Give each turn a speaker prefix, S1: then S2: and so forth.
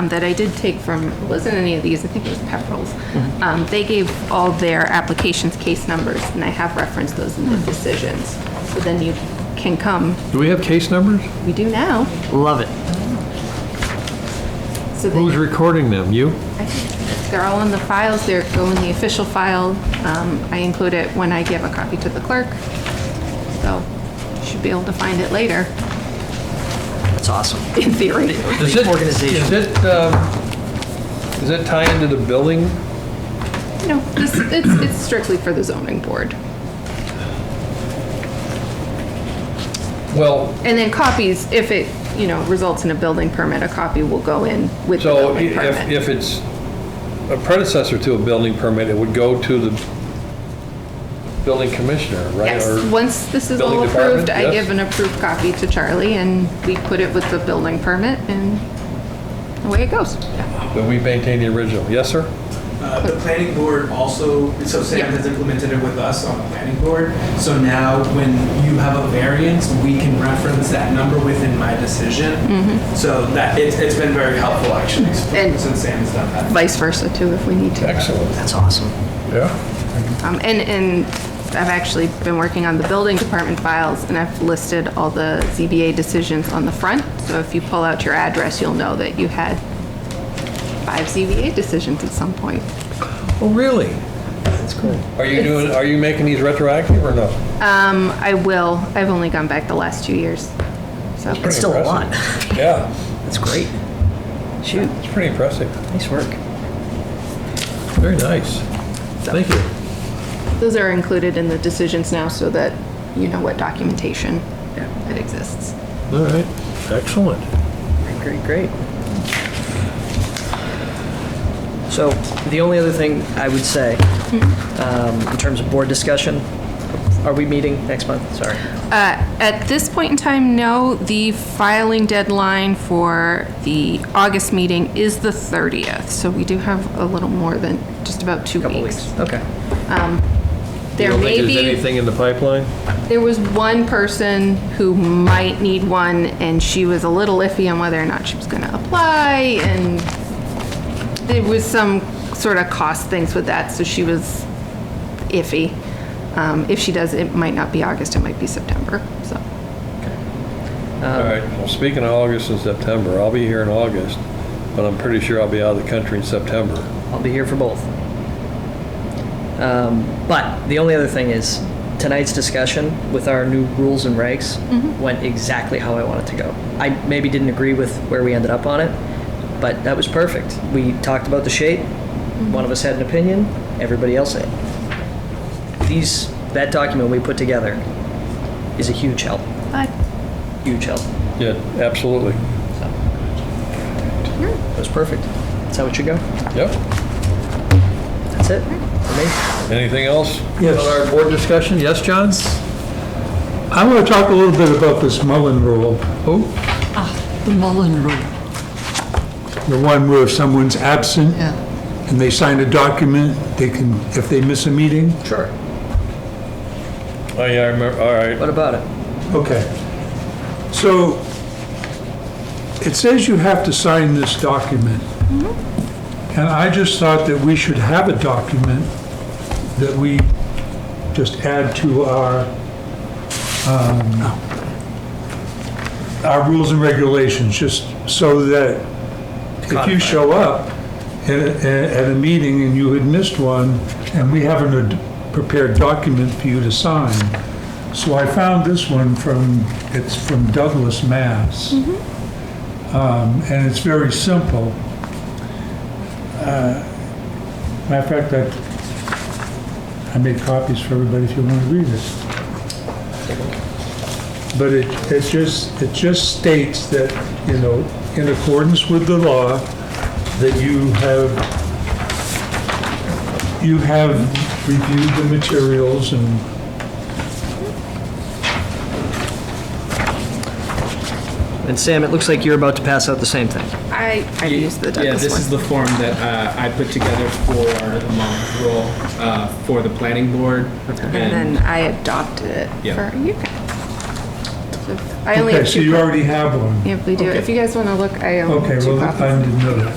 S1: um, that I did take from, it wasn't any of these, I think it was Pepperell's. Um, They gave all their applications case numbers, and I have referenced those in the decisions. So then you can come,
S2: Do we have case numbers?
S1: we do now.
S3: Love it.
S1: So
S2: Who's
S1: that
S2: recording them? You?
S1: I think they're all in the files, they're go in the official file. Um, I include it when I give a copy to the clerk. So you should be able to find it later,
S3: That's awesome.
S1: in theory.
S2: Does it-
S3: Organization.
S2: Is it, um, does it tie into the building?
S1: No, this, it's, it's strictly for the zoning board.
S2: Well,
S1: And then copies, if it, you know, results in a building permit, a copy will go in with the
S2: so i-
S1: building
S2: if,
S1: permit.
S2: if it's a predecessor to a building permit, it would go to the building commissioner, right? Or-
S1: Yes, once this is all
S2: uh, Building
S1: approved,
S2: department,
S1: I
S2: yes.
S1: give an approved copy to Charlie and we put it with the building permit and away it goes.
S2: But we maintain the original. Yes, sir?
S4: Uh, The planning board also, so Sam
S1: Yeah.
S4: has implemented it with us on the planning board. So now when you have a variance, we can reference that number within my decision. So that, it's, it's been very helpful actually,
S1: Mm-hmm. And-
S4: since Sam's done that.
S1: Vice versa too, if we need to.
S2: Excellent.
S3: That's awesome.
S2: Yeah.
S1: Um, and, and I've actually been working on the building department files and I've listed all the ZBA decisions on the front. So if you pull out your address, you'll know that you had five ZBA decisions at some point.
S2: Oh, really? That's cool. Are you doing, are you making these retroactive or no?
S1: Um, I will. I've only gone back the last two years. So,
S3: It's still a lot.
S2: Yeah,
S3: That's great. Shoot,
S2: it's pretty impressive.
S3: nice work.
S2: Very nice. Thank you.
S1: those are included in the decisions now so that you know what documentation that exists.
S2: All right, excellent.
S3: Great, great. So the only other thing I would say, um, in terms of board discussion, are we meeting next month? Sorry.
S1: Uh, At this point in time, no. The filing deadline for the August meeting is the 30th, so we do have a little more than just about two
S3: Couple
S1: weeks.
S3: weeks. Okay.
S1: There may be
S2: There's anything in the pipeline?
S1: There was one person who might need one, and she was a little iffy on whether or not she was going to apply, and there was some sort of cost things with that, so she was iffy. Um, If she does, it might not be August, it might be September, so. Um,
S2: All right, well, speaking of August and September, I'll be here in August, but I'm pretty sure I'll be out of the country in September.
S3: I'll be here for both. Um, But the only other thing is, tonight's discussion with our new rules and regs went exactly how I wanted to go. I maybe didn't agree with where we ended up on it, but that was perfect. We talked about the shape, one of us had an opinion, everybody else had. These, that document we put together is a huge help, huge help.
S2: Yeah, absolutely.
S3: It was perfect. That's how it should go.
S2: Yep.
S3: That's it for me.
S2: Anything else?
S5: Yes.
S2: On our board discussion? Yes, John?
S5: I want to talk a little bit about this Mullen Rule,
S2: Oh,
S6: The Mullen Rule.
S5: the one where if someone's absent
S6: Yeah.
S5: and they sign a document, they can, if they miss a meeting,
S3: Sure.
S2: oh, yeah, I remember, all right.
S3: What about it?
S5: okay. So it says you have to sign this document. And I just thought that we should have a document that we just add to our, um, our rules and regulations, just so that if you show up at, a- at a meeting and you had missed one, and we haven't a d- prepared document for you to sign. So I found this one from, it's from Douglas, Mass. Um, And it's very simple. Uh, Matter of fact, I, I made copies for everybody if you want to read it. But it, it just, it just states that, you know, in accordance with the law, that you have, you have reviewed the materials and
S3: And Sam, it looks like you're about to pass out the same thing.
S1: I, I used the
S4: Yeah, this
S1: Douglas
S4: is
S1: one.
S4: the form that uh, I put together for the Mullen rule, uh, for the planning board.
S1: And then I adopted it
S4: Yeah.
S1: for you guys. So I only
S5: Okay,
S1: have
S5: so
S1: two.
S5: you already have one.
S1: If we do,
S5: Okay.
S1: if you guys want to look, I own
S5: Okay,
S1: two
S5: well,
S1: copies.
S5: I didn't know that.